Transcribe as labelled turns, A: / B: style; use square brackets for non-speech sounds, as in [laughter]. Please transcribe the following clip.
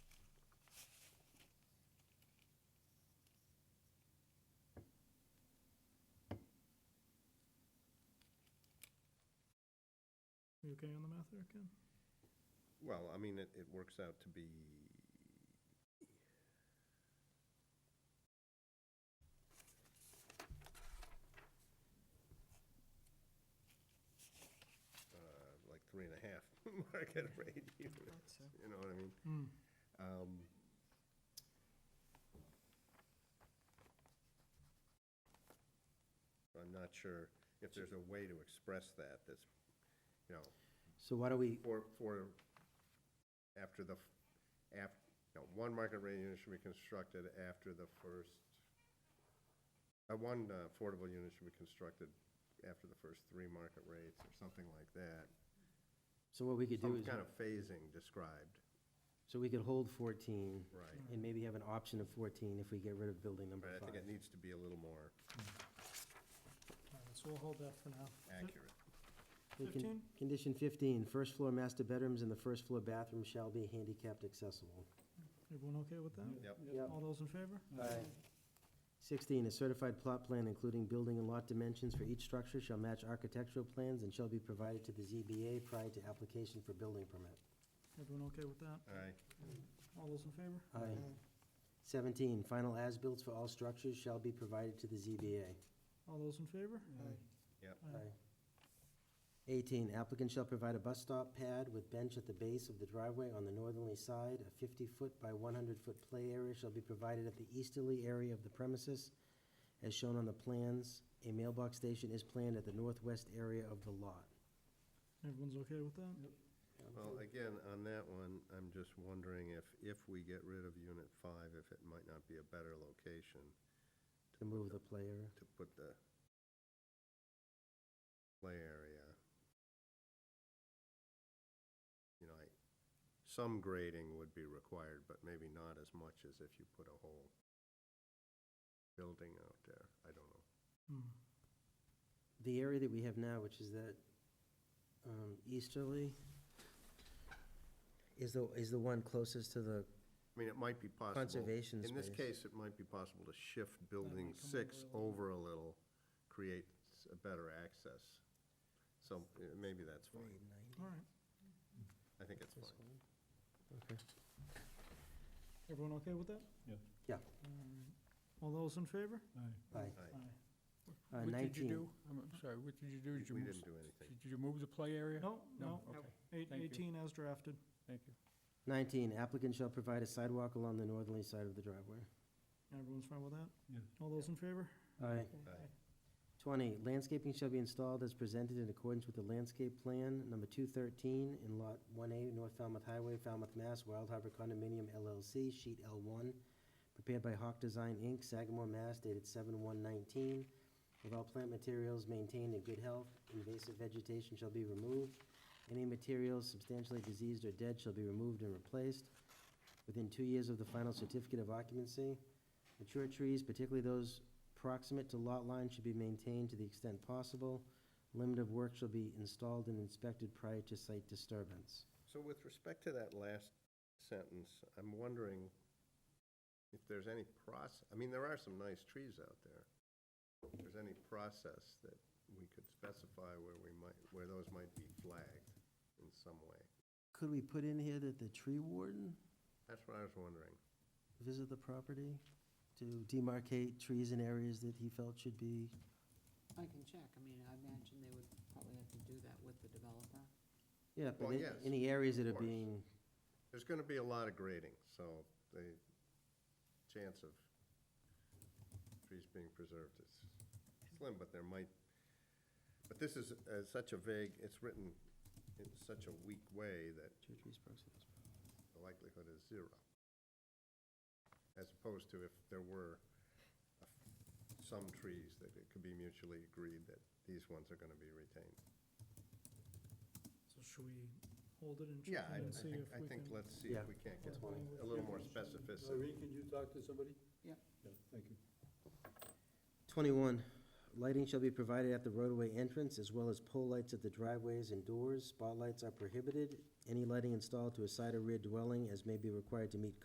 A: You okay on the math there, Ken?
B: Well, I mean, it, it works out to be, uh, like three and a half [laughs] market rate units,
C: so.
B: you know what I mean?
A: Hmm.
B: Um, I'm not sure if there's a way to express that, that's, you know,
D: So why do we,
B: for, for, after the, af, no, one market rate unit should be constructed after the first, uh, one uh, affordable unit should be constructed after the first three market rates or something like that.
D: so what we could do
B: Some
D: is,
B: kind of phasing described.
D: so we could hold fourteen
B: Right.
D: and maybe have an option of fourteen if we get rid of building number
B: But I think
D: five.
B: it needs to be a little more
A: All right, so we'll hold that for now.
B: accurate.
D: We can-
A: 15?
D: Condition fifteen, first floor master bedrooms and the first floor bathroom shall be handicapped accessible.
A: Everyone okay with that?
B: Yep.
D: Yep.
A: All those in favor?
D: Sixteen, a certified plot plan including building and lot dimensions for each structure shall match architectural plans and shall be provided to the ZBA prior to application for building permit.
A: Everyone okay with that?
B: Aye.
A: All those in favor?
D: Aye. Seventeen, final as-built for all structures shall be provided to the ZBA.
A: All those in favor? Aye.
D: Aye. Eighteen, applicant shall provide a bus stop pad with bench at the base of the driveway on the northerly side. A fifty-foot by one hundred-foot play area shall be provided at the easterly area of the premises as shown on the plans. A mailbox station is planned at the northwest area of the lot.
A: Everyone's okay with that?
B: Well, again, on that one, I'm just wondering if, if we get rid of unit five, if it might not be a better location
D: To move the play area.
B: to put the play area. You know, I, some grading would be required, but maybe not as much as if you put a whole building out there. I don't know.
A: Hmm.
D: The area that we have now, which is that um, easterly, is the, is the one closest to the,
B: I mean, it might be possible.
D: Conservation
B: In this
D: space.
B: case, it might be possible to shift building
A: might come
B: six
A: over
B: over a little, create s- a better access. So uh, maybe that's fine.
A: All right.
B: I think it's fine.
A: Everyone okay with that?
D: Yeah.
A: All right. All those in favor?
D: Aye.
A: Aye.
B: Aye.
D: Uh,
E: What did
D: 19.
E: you do? I'm I'm sorry, what did you do? Did you
B: We
E: move,
B: didn't do anything.
E: did you move the play area?
A: No, no,
E: Okay,
A: eight,
E: Thank you.
A: eighteen as drafted.
E: thank you.
D: 19, applicant shall provide a sidewalk along the northerly side of the driveway.
A: Everyone's fine with that?
E: Yeah.
A: All those in favor?
D: Aye.
B: Aye.
D: 20, landscaping shall be installed as presented in accordance with the landscape plan, number 213, in Lot 1A, North Falmouth Highway, Falmouth, Mass., Wild Harbor Condominium LLC, Sheet L1, prepared by Hawk Design, Inc., Sagamore, Mass., dated 7/119. With all plant materials maintained in good health, invasive vegetation shall be removed. Any materials substantially diseased or dead shall be removed and replaced within two years of the final certificate of occupancy. Mature trees, particularly those proximate to lot line should be maintained to the extent possible. Limit of work shall be installed and inspected prior to site disturbance.
B: So with respect to that last sentence, I'm wondering if there's any process, I mean, there are some nice trees out there. If there's any process that we could specify where we might, where those might be flagged in some way.
D: Could we put in here that the tree warden
B: That's what I was wondering.
D: visit the property to demarcate trees in areas that he felt should be?
C: I can check, I mean, I imagine they would probably have to do that with the developer.
D: Yeah, but
B: Well,
D: in-
B: yes,
D: any areas that
B: of
D: are
B: course.
D: being,
B: There's going to be a lot of grading, so the chance of trees being preserved is slim, but there might, but this is uh, such a vague, it's written in such a weak way that
D: two trees proximate. to this property.
B: the likelihood is zero. As opposed to if there were a f- some trees that it could be mutually agreed that these ones are going to be retained.
A: So should we hold it and
B: Yeah,
A: check
B: I-
A: in
B: I
A: and see
B: think,
A: if
B: I
A: we
B: think,
A: can?
B: let's see
D: Yeah.
B: if we can't get
A: That's fine.
B: a little more specificity.
F: Irene, can you talk to somebody?
C: Yeah.
F: Yeah, thank you.
D: Twenty-one, lighting shall be provided at the roadway entrance as well as pole lights at the driveways and doors. Spotlights are prohibited. Any lighting installed to a side or rear dwelling as may be required to meet